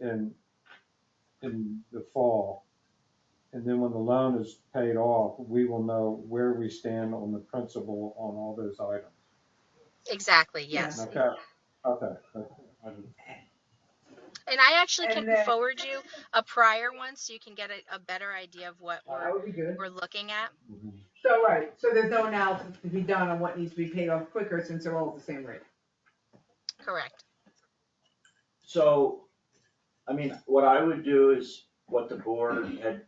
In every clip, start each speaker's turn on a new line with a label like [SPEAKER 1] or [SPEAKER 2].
[SPEAKER 1] in, in the fall. And then when the loan is paid off, we will know where we stand on the principal on all those items.
[SPEAKER 2] Exactly, yes.
[SPEAKER 1] Okay, okay. I didn't-
[SPEAKER 2] And I actually
[SPEAKER 3] And
[SPEAKER 2] can
[SPEAKER 3] then-
[SPEAKER 2] forward you a prior one so you can get a, a better idea of what
[SPEAKER 3] That
[SPEAKER 2] we're,
[SPEAKER 3] would be good.
[SPEAKER 2] we're looking at.
[SPEAKER 1] mhm.
[SPEAKER 3] So, right, so there's no analysis to be done on what needs to be paid off quicker since they're all at the same rate.
[SPEAKER 2] Correct.
[SPEAKER 4] So, I mean, what I would do is what the board had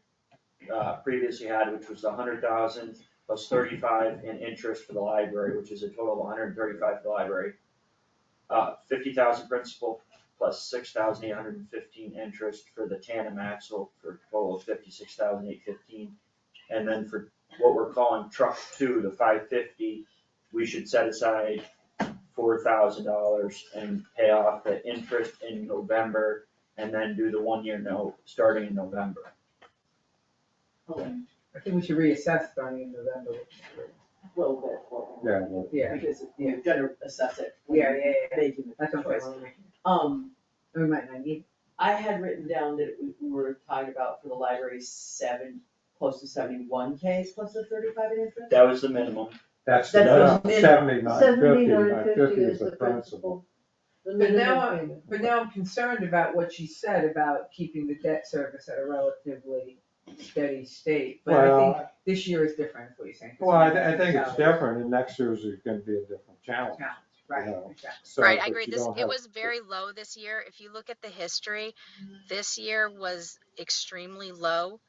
[SPEAKER 4] uh, previously had, which was the hundred thousand plus thirty-five in interest for the library, which is a total of hundred and thirty-five for the library. Uh, fifty thousand principal plus six thousand eight hundred and fifteen interest for the tandem axle for a total of fifty-six thousand eight fifteen. And then for what we're calling truck two, the five fifty, we should set aside four thousand dollars and pay off the interest in November and then do the one-year note starting in November.
[SPEAKER 3] I think we should reassess starting in November.
[SPEAKER 5] little bit, well,
[SPEAKER 1] Yeah, well,
[SPEAKER 3] Yeah,
[SPEAKER 5] because you've got to assess it. when
[SPEAKER 3] yeah, yeah,
[SPEAKER 5] you're
[SPEAKER 3] yeah.
[SPEAKER 5] Making the
[SPEAKER 3] That's what
[SPEAKER 5] choice.
[SPEAKER 3] I'm,
[SPEAKER 5] Um,
[SPEAKER 3] we might not need,
[SPEAKER 5] I had written down that we we were talking about for the library seven, close to seventy-one K plus the thirty-five in interest.
[SPEAKER 4] That was the minimum.
[SPEAKER 1] That's the
[SPEAKER 5] That's the min-
[SPEAKER 1] seventy-nine fifty,
[SPEAKER 6] Seventy-nine
[SPEAKER 1] nine
[SPEAKER 6] fifty is the principal. The
[SPEAKER 3] But now
[SPEAKER 6] minimum
[SPEAKER 3] I'm-
[SPEAKER 6] payment.
[SPEAKER 3] but now I'm concerned about what she said about keeping the debt service at a relatively steady state. But I think
[SPEAKER 1] Well,
[SPEAKER 3] this year is different, is what you're saying.
[SPEAKER 1] well, I, I think it's
[SPEAKER 3] Challenge.
[SPEAKER 1] different, and next year's is gonna be a different challenge.
[SPEAKER 3] Challenge, Right,
[SPEAKER 1] Yeah.
[SPEAKER 3] exactly.
[SPEAKER 1] So,
[SPEAKER 2] Right, I
[SPEAKER 1] but
[SPEAKER 2] agree.
[SPEAKER 1] you
[SPEAKER 2] This,
[SPEAKER 1] don't
[SPEAKER 2] it
[SPEAKER 1] have-
[SPEAKER 2] was very low this year. If you look at the history, this year was extremely low.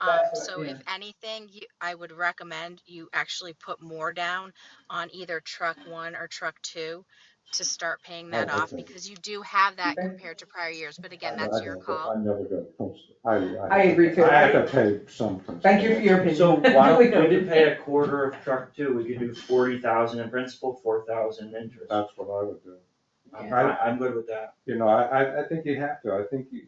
[SPEAKER 2] Um,
[SPEAKER 3] That's what-
[SPEAKER 2] so if anything, you, I would recommend you actually put more down on either truck one or truck two to start paying that
[SPEAKER 1] Oh,
[SPEAKER 2] off
[SPEAKER 1] okay. Oh,
[SPEAKER 2] because you do have that
[SPEAKER 3] Okay.
[SPEAKER 2] compared to prior years. But again,
[SPEAKER 1] I
[SPEAKER 2] that's
[SPEAKER 1] don't
[SPEAKER 2] your
[SPEAKER 1] go-
[SPEAKER 2] call.
[SPEAKER 1] I never go to principal. I, I.
[SPEAKER 3] I agree too.
[SPEAKER 1] I have to pay some. principal.
[SPEAKER 3] Thank you for your opinion.
[SPEAKER 4] So why don't, we didn't pay a quarter of truck two, we could do forty thousand in principal, four thousand in interest.
[SPEAKER 1] That's what I would do.
[SPEAKER 4] I'm, I- I'm good with that.
[SPEAKER 1] You know, I, I, I think you have to, I think you,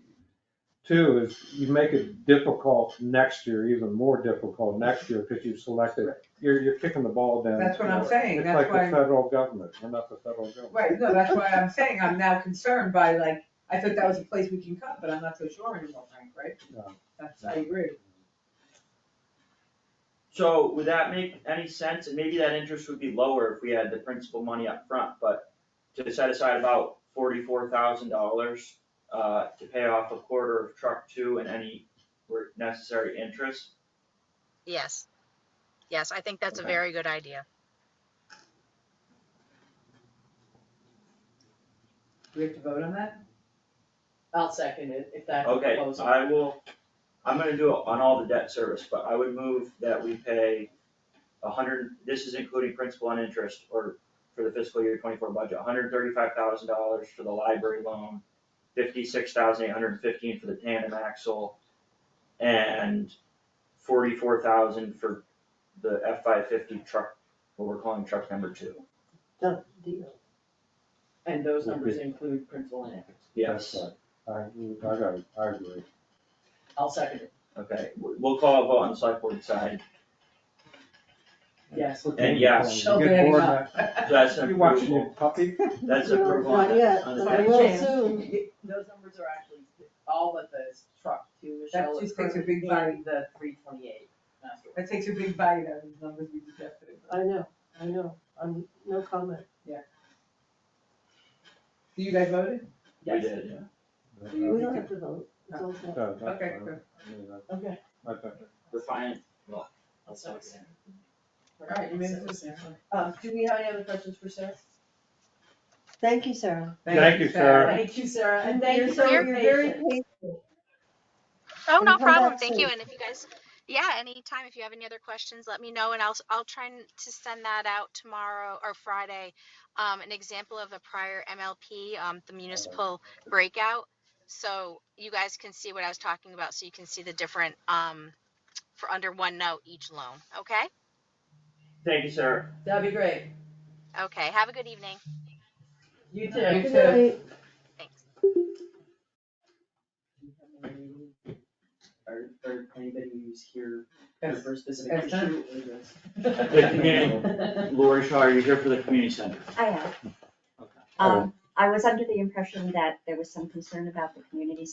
[SPEAKER 1] two is you make it difficult next year, even more difficult next year, because you've selected, you're, you're kicking the ball down.
[SPEAKER 3] That's what I'm saying,
[SPEAKER 1] It's
[SPEAKER 3] that's
[SPEAKER 1] like
[SPEAKER 3] why-
[SPEAKER 1] the federal government, we're not the federal government.
[SPEAKER 3] Right, no, that's why I'm saying I'm now concerned by like, I thought that was a place we can cut, but I'm not so sure anymore, Frank, right?
[SPEAKER 1] No.
[SPEAKER 3] That's, I agree.
[SPEAKER 4] So would that make any sense? And maybe that interest would be lower if we had the principal money up front, but to set aside about forty-four thousand dollars uh, to pay off a quarter of truck two and any necessary interest,
[SPEAKER 2] Yes. Yes, I think that's a
[SPEAKER 4] Okay.
[SPEAKER 2] very good idea.
[SPEAKER 3] Do we have to vote on that?
[SPEAKER 5] I'll second it, if that's the
[SPEAKER 4] Okay,
[SPEAKER 5] proposal.
[SPEAKER 4] I will, I'm gonna do it on all the debt service, but I would move that we pay a hundred, this is including principal and interest, or for the fiscal year twenty-four budget, hundred thirty-five thousand dollars for the library loan, fifty-six thousand eight hundred fifteen for the tandem axle, and forty-four thousand for the F five fifty truck, what we're calling truck number two.
[SPEAKER 6] Done deal.
[SPEAKER 5] And those numbers include principal and interest.
[SPEAKER 4] Yes,
[SPEAKER 1] That's right. I, I got it, I agree.
[SPEAKER 5] I'll second it,
[SPEAKER 4] okay, we- we'll call a vote on the select board side,
[SPEAKER 5] yes.
[SPEAKER 4] And yes.
[SPEAKER 5] She'll
[SPEAKER 1] You get
[SPEAKER 5] bang
[SPEAKER 1] bored
[SPEAKER 5] up.
[SPEAKER 1] now.
[SPEAKER 4] that's
[SPEAKER 1] You
[SPEAKER 4] approval.
[SPEAKER 1] watching your puppy?
[SPEAKER 4] That's approval on
[SPEAKER 6] Not yet,
[SPEAKER 4] the, on the
[SPEAKER 6] but I
[SPEAKER 4] debt.
[SPEAKER 6] will
[SPEAKER 5] Chance.
[SPEAKER 6] soon.
[SPEAKER 5] Those numbers are actually, all but the truck two,
[SPEAKER 3] That
[SPEAKER 5] Michelle,
[SPEAKER 3] just takes a big bite.
[SPEAKER 5] and the three twenty-eight.
[SPEAKER 3] That takes a big bite out of the numbers we suggested.
[SPEAKER 6] I know, I know, I'm, no comment.
[SPEAKER 3] Do you guys voted?
[SPEAKER 4] We did, yeah.
[SPEAKER 6] We don't have to vote, it's all set.
[SPEAKER 1] No, that's
[SPEAKER 3] Okay,
[SPEAKER 1] fine.
[SPEAKER 3] good.
[SPEAKER 1] I mean, that's-
[SPEAKER 5] Okay,
[SPEAKER 1] I think-
[SPEAKER 4] The finance
[SPEAKER 5] I'll second it.
[SPEAKER 3] Alright, you made it.
[SPEAKER 5] Um, do we have any other questions for Sarah?
[SPEAKER 6] Thank you, Sarah.
[SPEAKER 1] Thank you, Sarah.
[SPEAKER 5] Thank you, Sarah, and
[SPEAKER 6] You're
[SPEAKER 5] thank you
[SPEAKER 6] so-
[SPEAKER 5] for your
[SPEAKER 6] You're very
[SPEAKER 5] patience.
[SPEAKER 6] patient.
[SPEAKER 2] Oh,
[SPEAKER 6] And
[SPEAKER 2] no
[SPEAKER 6] come back
[SPEAKER 2] problem. Thank you. And
[SPEAKER 6] soon.
[SPEAKER 2] if you guys, yeah, anytime, if you have any other questions, let me know and I'll, I'll try and to send that out tomorrow or Friday. Um, an example of a prior MLP, um, the municipal breakout. So you guys can see what I was talking about. So you can see the different, um, for under one note each loan. Okay?
[SPEAKER 4] Thank you, Sarah.
[SPEAKER 5] That'd be great.
[SPEAKER 2] Okay. Have a good evening.
[SPEAKER 5] You
[SPEAKER 3] You
[SPEAKER 5] too.
[SPEAKER 6] Good
[SPEAKER 3] too.
[SPEAKER 6] night.
[SPEAKER 2] Thanks.
[SPEAKER 5] Or, or anybody who's here
[SPEAKER 3] Yes.
[SPEAKER 5] for a specific
[SPEAKER 3] Yes,
[SPEAKER 5] issue or just.
[SPEAKER 4] The community- Lori Shaw, you're here for the community center.
[SPEAKER 7] I am.
[SPEAKER 4] Okay.
[SPEAKER 7] Um, I was under the impression that there was some concern about the community